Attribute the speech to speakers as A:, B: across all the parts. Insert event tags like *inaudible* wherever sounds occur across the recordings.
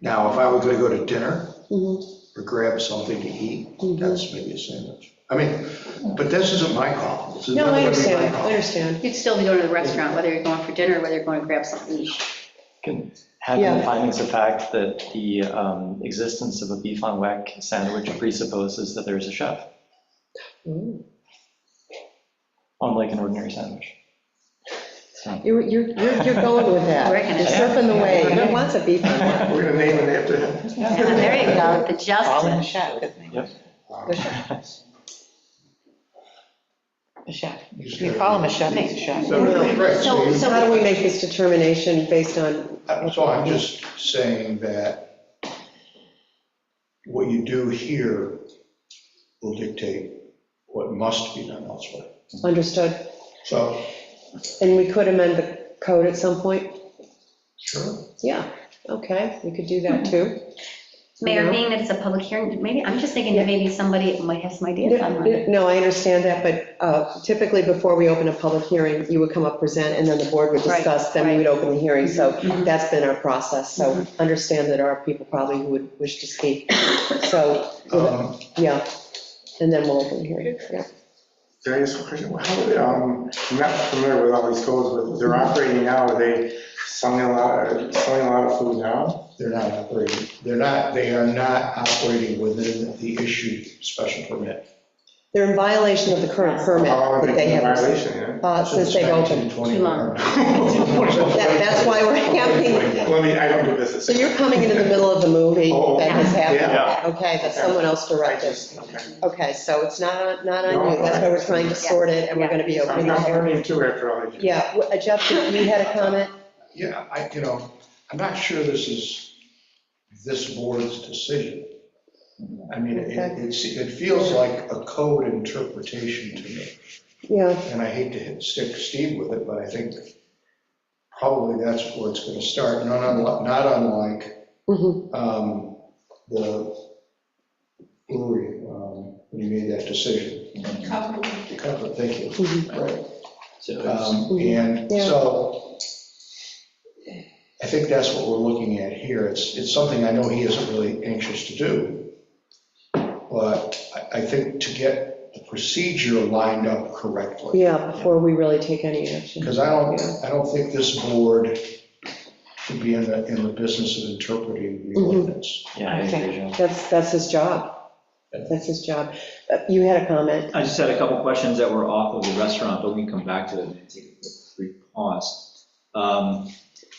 A: Now, if I were gonna go to dinner
B: Mhm.
A: or grab something to eat,
B: Mhm.
A: that's maybe a sandwich. I mean, but this isn't my call. This is
B: No,
A: not gonna be
B: I
A: my
B: understand, I
A: call.
B: understand.
C: You'd still be going to the restaurant, whether you're going for dinner, whether you're going to grab something to eat.
D: Can have
B: Yeah.
D: the findings of fact that the um, existence of a beef on whack sandwich presupposes that there is a chef,
B: Mm.
D: unlike an ordinary sandwich.
B: You're, you're, you're you're going with that.
C: We're gonna-
B: You're stripping away.
D: Yeah.
B: Who wants a beef on that?
A: We're gonna name it after him.
C: Yeah, There you go, the
E: Call in
C: justice.
E: chef.
D: Yep.
A: Wow.
E: The chef. The chef. If You call him a chef, he's a chef.
A: So, right, so
C: So,
A: you-
B: So how do
C: so,
B: we make this determination based on,
A: Uh, So I'm just saying that what you do here will dictate what must be done elsewhere.
B: understood?
A: So,
B: And we could amend the code at some point?
A: sure.
B: Yeah, okay, we could do that
C: Hmm.
B: too.
C: Mayor,
B: No.
C: being that it's a public hearing, maybe, I'm just thinking that
B: Yeah.
C: maybe somebody might have some ideas on that.
B: No, I understand that, but uh, typically before we open a public hearing, you would come up, present, and then the board would
C: Right, Mm-hmm.
B: discuss, then we would open the hearing. So
C: mhm.
B: that's been our process, so understand that there are people probably who would wish to speak. So,
A: Um,
B: yeah, and then we'll open the hearing, yeah.
F: Can I ask a question? How, do they, um, I'm not familiar with all these codes, but they're operating now, are they selling a lot, selling a lot of food now?
A: They're not operating, they're not, they are not operating within the issued special permit.
B: They're in violation of the current permit
F: How long
B: that
F: have they
B: they
F: been in
B: have,
F: violation
B: *laughs*
F: yeah?
B: uh, since they've opened.
C: Too
B: That-
A: That's
B: That's why we're having,
F: Well, I mean, I don't do business.
B: so you're coming into the middle of the movie that has
F: Yeah.
B: happened, okay, that someone else
F: I
B: directed.
F: just, okay.
B: Okay, so it's not, on- not on you, that's why we're trying to sort it, and we're gonna be opening
F: I'm
B: the
F: I'm
B: hearing.
F: learning too after all these. years.
B: Yeah, w- uh, Jeff, you you had a comment?
A: Yeah, I, you know, I'm not sure this is this board's decision. I mean, it,
B: Okay.
A: it's, it feels like a code interpretation to me.
B: Yeah,
A: And I hate to hit, stick Steve with it, but I think probably that's where it's gonna start, not unlike, not unlike,
B: mhm,
A: um, the brewery, um, when you made that decision. Cover, thank you.
B: Mhm.
A: Right.
D: *laughs* So it's-
A: Um, And
B: Yeah.
A: so I think that's what we're looking at here. It's, it's something I know he isn't really anxious to do. But I, I think to get the procedure lined up correctly.
B: yeah, before we really take any action.
A: Because I don't, I don't think this board should be in the, in the business of interpreting the
B: Mhm.
A: ordinance.
D: Yeah, I
E: Okay.
D: agree, John.
B: That's, that's his job, that's his job. Uh, You had a comment?
G: I just had a couple questions that were off of the restaurant, but we can come back to it and take a brief pause. Um,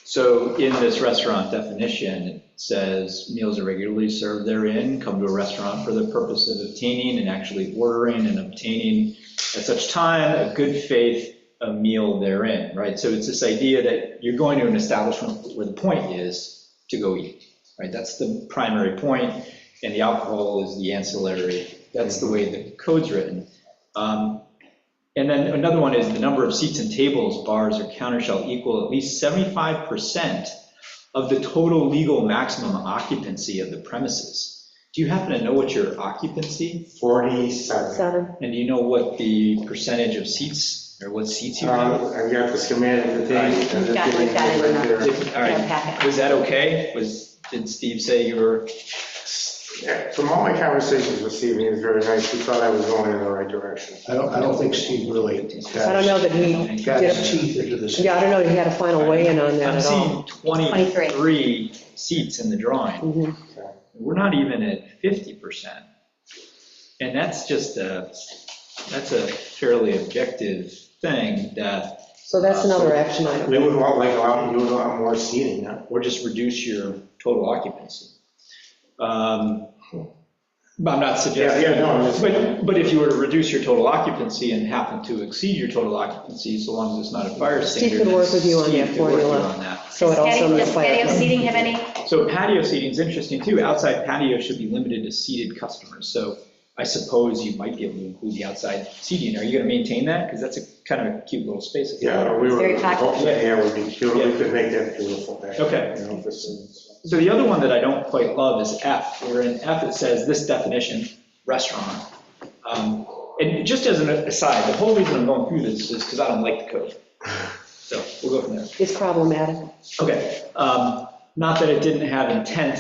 G: So in this restaurant definition, it says meals are regularly served therein, come to a restaurant for the purpose of obtaining and actually ordering and obtaining at such time a good faith a meal therein, right? So it's this idea that you're going to an establishment where the point is to go eat, right? That's the primary point, and the alcohol is the ancillary. That's the way the code's written. Um, And then another one is the number of seats and tables, bars, or counter shall equal at least 75% of the total legal maximum occupancy of the premises. Do you happen to know what your occupancy,
F: Forty-seven.
B: Seven.
G: and do you know what the percentage of seats, or what seats you have?
F: Um, I've got the schematic, the thing. and the
C: Got it,
F: thing
C: got it.
F: right there.
G: Did- All
C: Yeah,
G: right,
C: packet.
G: was that okay? Was, did Steve say you were,
F: Yeah, From all my conversations this evening, it was very nice, he thought I was going in the right direction.
A: I don't, I don't think Steve really
B: I don't know that he,
A: got his teeth into this.
B: yeah, I don't know, that he had a final weigh-in on that
G: I'm
B: at all.
G: seeing 23 seats in the drawing.
B: Mhm.
G: We're not even at 50%. And that's just a, that's a fairly objective thing that
B: So that's another action item.
F: They would want like a lot, you would want more seating, huh?
G: or just reduce your total occupancy. Um, But I'm not suggesting.
F: Yeah, yeah, no, I'm just-
G: But, but if you were to reduce your total occupancy and happen to exceed your total occupancy, so long as it's not a fire
B: Steve
G: standard.
B: could work with you on
G: Steve
B: that
G: could work with you
B: formula.
G: on that.
B: So it also.
C: Patio-
B: might
C: Does patio
B: apply-
C: seating have any?
G: So patio seating is interesting too. Outside patio should be limited to seated customers. So I suppose you might be able to include the outside seating. Are you going to maintain that? Because that's a kind of a cute little space.
F: Yeah, we were,
C: very popular.
F: hopefully, yeah, it would be cute, we
G: Yeah.
F: could make that beautiful. back,
G: Okay.
F: you know, this is-
G: So the other one that I don't quite love is F, where in F it says this definition, restaurant. Um, And just as an aside, the whole reason I'm going through this is because I don't like the code. So we'll go from there.
B: It's problematic.
G: Okay, um, not that it didn't have intent